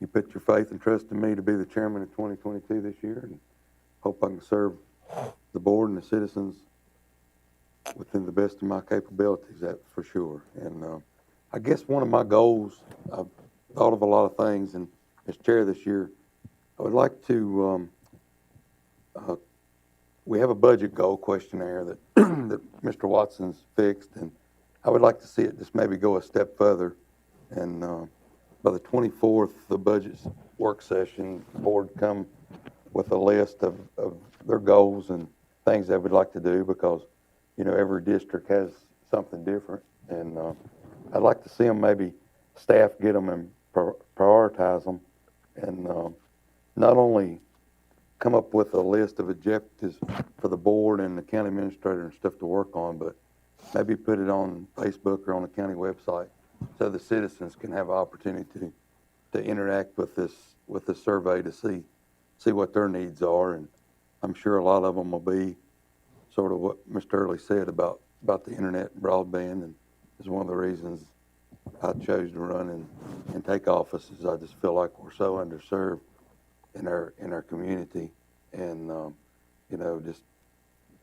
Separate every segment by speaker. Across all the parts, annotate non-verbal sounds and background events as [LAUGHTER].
Speaker 1: you put your faith and trust in me to be the chairman of 2022 this year, and hope I can serve the board and the citizens within the best of my capabilities, that's for sure. And uh, I guess one of my goals, I've thought of a lot of things, and as chair this year, I would like to, um, uh, we have a budget goal questionnaire that, [CLEARS THROAT] that Mr. Watson's fixed, and I would like to see it just maybe go a step further. And uh, by the 24th, the budget work session, the board come with a list of, of their goals and things they would like to do, because, you know, every district has something different. And uh, I'd like to see them, maybe staff get them and prior- prioritize them, and um, not only come up with a list of objectives for the board and the county administrator and stuff to work on, but maybe put it on Facebook or on the county website so the citizens can have an opportunity to, to interact with this, with this survey to see, see what their needs are. And I'm sure a lot of them will be sort of what Mr. Early said about, about the internet broadband and is one of the reasons I chose to run and, and take office is I just feel like we're so underserved in our, in our community. And, um, you know, just,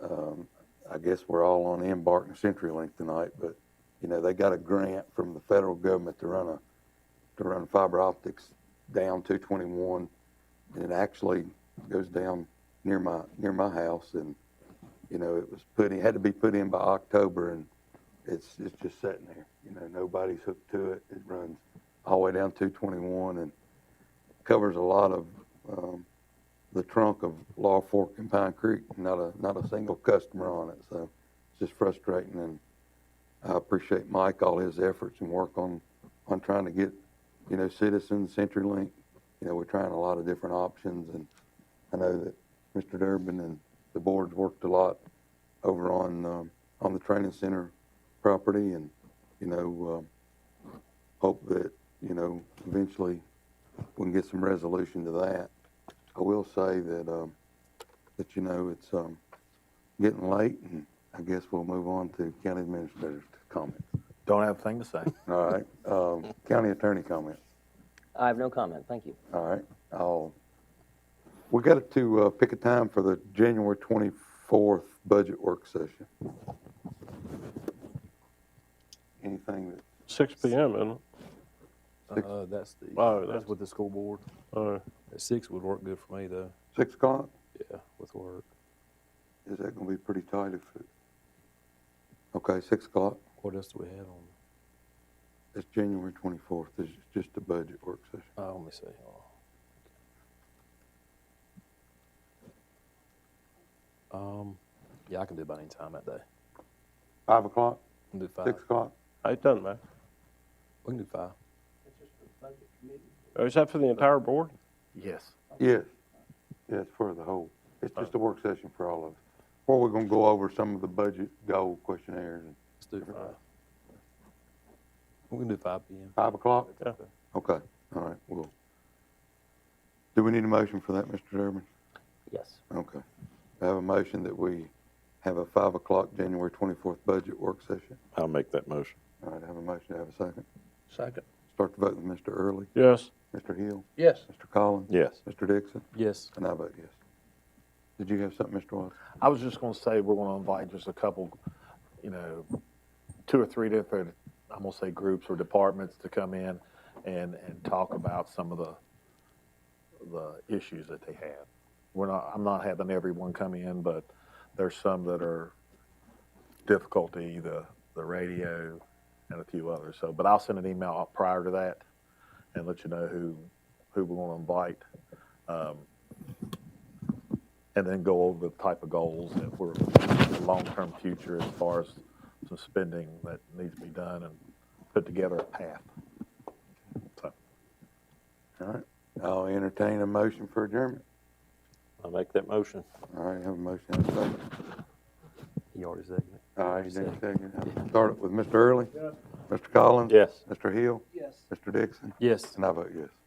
Speaker 1: um, I guess we're all on Embark and CenturyLink tonight, but, you know, they got a grant from the federal government to run a, to run fiber optics down two twenty-one. And it actually goes down near my, near my house and, you know, it was put in, had to be put in by October and it's, it's just sitting there. You know, nobody's hooked to it. It runs all the way down two twenty-one and covers a lot of, um, the trunk of Law Fork and Pine Creek, not a, not a single customer on it, so it's just frustrating, and I appreciate Mike, all his efforts and work on, on trying to get, you know, citizens, CenturyLink, you know, we're trying a lot of different options, and I know that Mr. Durbin and the board's worked a lot over on, um, on the training center property, and, you know, um, hope that, you know, eventually we can get some resolution to that. I will say that, um, that, you know, it's, um, getting late, and I guess we'll move on to county administrator's comments.
Speaker 2: Don't have a thing to say.
Speaker 1: All right, um, county attorney comments,
Speaker 3: I have no comment, thank you.
Speaker 1: all right, I'll, we got to, uh, pick a time for the January twenty-fourth budget work session. Anything that,
Speaker 4: Six P M, isn't it?
Speaker 1: Six.
Speaker 5: [LAUGHS] Uh, that's the,
Speaker 4: Oh,
Speaker 5: that's
Speaker 4: that's-
Speaker 5: with the school board.
Speaker 4: Oh,
Speaker 5: At six would work good for me though,
Speaker 1: six o'clock,
Speaker 5: yeah, with work.
Speaker 1: is that gonna be pretty tight if, it- okay, six o'clock,
Speaker 5: What else do we have on?
Speaker 1: it's January twenty-fourth, it's just a budget work session.
Speaker 5: Oh, let me see. Hold on. Um, yeah, I can do about any time that day.
Speaker 1: Five o'clock,
Speaker 5: We can do five.
Speaker 1: six o'clock?
Speaker 4: it doesn't matter.
Speaker 5: We can do five.
Speaker 4: Oh, Is that for the entire board?
Speaker 2: Yes.
Speaker 1: Yes, yes, for the whole. It's just a work session for all of us. Or we're gonna go over some of the budget goal questionnaires. and-
Speaker 5: Let's do five. We can do five P M.
Speaker 1: Five o'clock?
Speaker 4: Yeah.
Speaker 1: Okay, all right, well. Do we need a motion for that, Mr. Durbin?
Speaker 3: Yes.
Speaker 1: Okay. I have a motion that we have a five o'clock January twenty-fourth budget work session.
Speaker 6: I'll make that motion.
Speaker 1: All right, I have a motion, I have a second.
Speaker 2: Second.
Speaker 1: Start the vote with Mr. Early,
Speaker 4: Yes.
Speaker 1: Mr. Hill,
Speaker 2: Yes.
Speaker 1: Mr. Collins.
Speaker 6: Yes.
Speaker 1: Mr. Dixon,
Speaker 5: Yes,
Speaker 1: and I vote yes. Did you have something, Mr. Watson?
Speaker 2: I was just going to say we're going to invite just a couple, you know, two or three different, I'm going to say groups or departments to come in and, and talk about some of the, the issues that they have. We're not, I'm not having everyone come in, but there's some that are difficulty, the, the radio and a few others. So, but I'll send an email out prior to that and let you know who, who we're going to invite. Um, and then go over the type of goals that we're, the long-term future as far as some spending that needs to be done and put together a path. So,
Speaker 1: All right, I'll entertain a motion for adjournment.
Speaker 6: I'll make that motion.
Speaker 1: All right, have a motion, have a second.
Speaker 5: he already said it.
Speaker 1: All right, Dixon, second. Start it with Mr. Early. Mr. Collins.
Speaker 6: Yes.
Speaker 1: Mr. Hill.
Speaker 3: Yes.
Speaker 1: Mr. Dixon.
Speaker 5: Yes.
Speaker 1: And I vote yes.